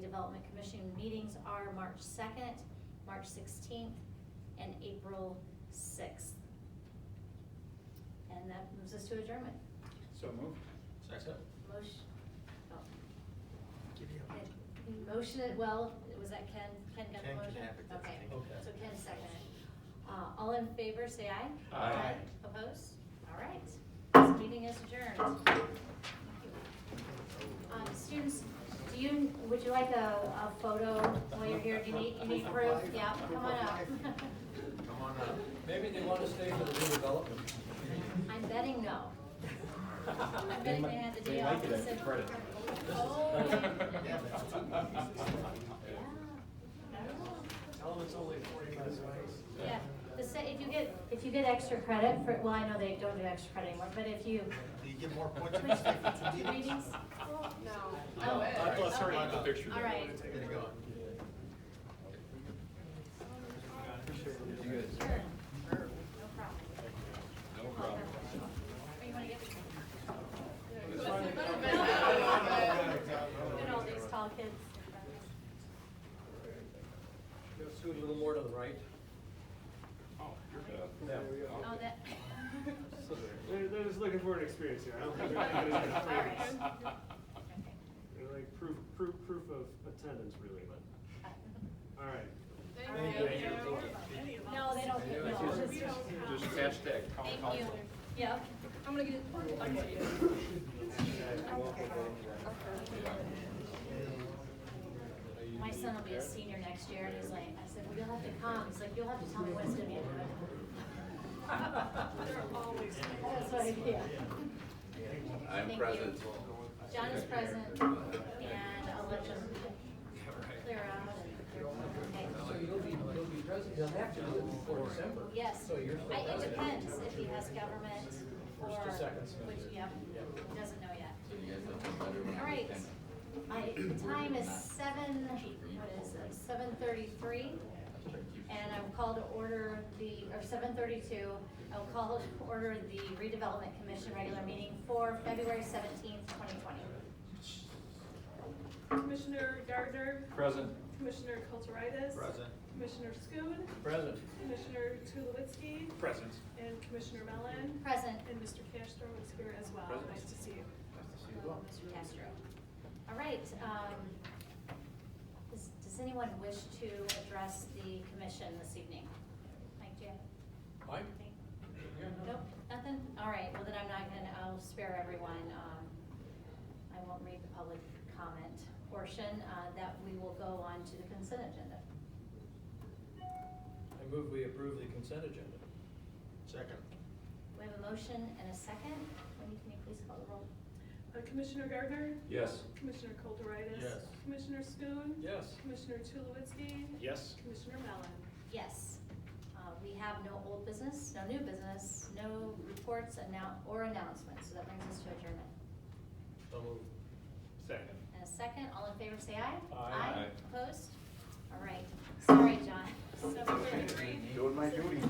Development Commission meetings are March second, March sixteenth, and April sixth. And that moves us to adjournment. So moved. Second. Motion, oh, it- motion, it- well, was that Ken? Ken got the Ken can motion? have it, that's Okay, the thing. so Ken seconded. Uh, all in favor, say aye. Aye. Opposed? All right, this meeting is adjourned. Um, students, do you, would you like a, a photo while you're here? Do you need, you need proof? Yeah, come on up. Come on up. Maybe they want to stay for the redevelopment. I'm betting no. I'm betting they had the day off. and said- Oh, yeah. Yeah, that's two Yeah. Tell them it's only forty-five bucks. Yeah, the se- if you get, if you get extra credit for, well, I know they don't do extra credit anymore, but if you. You get more points if you stick with the deal. Readings? No. Oh, I thought Sarah had the okay. picture. All right. There you go. Sure. No problem. No problem. Or you wanna get the- Look at all these tall kids. Scoot a little more to the right. Oh, you're good. Yeah. Oh, that. So there. They're, they're just looking for an experience here. I don't think they're gonna get All right. points. They're like proof, proof, proof of attendance really, but, all right. Thank you. No, they don't get, no, it's just, Just hashtag town thank you. council. Yeah. I'm gonna get it. My son will be a senior next year, and he's like, I said, well, you'll have to come, he's like, you'll have to tell me what's gonna be in it. They're always. That's what I, yeah. Thank I'm you. present. John is present, and I'll let them clear out. and- So you'll be, you'll be president, you'll have to do it before December. Yes, So you're still I- it president. depends if he has government or, First or second. which, yep, doesn't know yet. So you guys have been better when I All right, was my time is seven, what is it, seven thirty-three? And I will call to order the, or seven thirty-two, I will call to order the redevelopment commission regular meeting for February seventeenth, twenty twenty. Commissioner Gardner, Present. Commissioner Kulturitis. Present. Commissioner Schoon, President. Commissioner Tulowitzki, Present. and Commissioner Mellon, Present, and Mr. Castro is here as well. Nice to see you. Hello, Mr. Castro. All right, um, does, does anyone wish to address the commission this evening? Mike, do you have Mike? anything? Yeah. Nope, nothing? All right, well then I'm not gonna, I'll spare everyone, um, I won't read the public comment portion, uh, that we will go on to the consent agenda. I move we approve the consent agenda. Second. We have a motion and a second, Wendy, can you please call the roll? Uh, Commissioner Gardner, Yes. Commissioner Kulturitis. Yes. Commissioner Schoon. Yes. Commissioner Tulowitzki, Yes. Commissioner Mellon. Yes, uh, we have no old business, no new business, no reports annou- or announcements, so that brings us to adjournment. So move. Second. And a second, all in favor, say aye. Aye. Aye. Opposed? All right, sorry, John. Seven thirty-three. Doing my duty.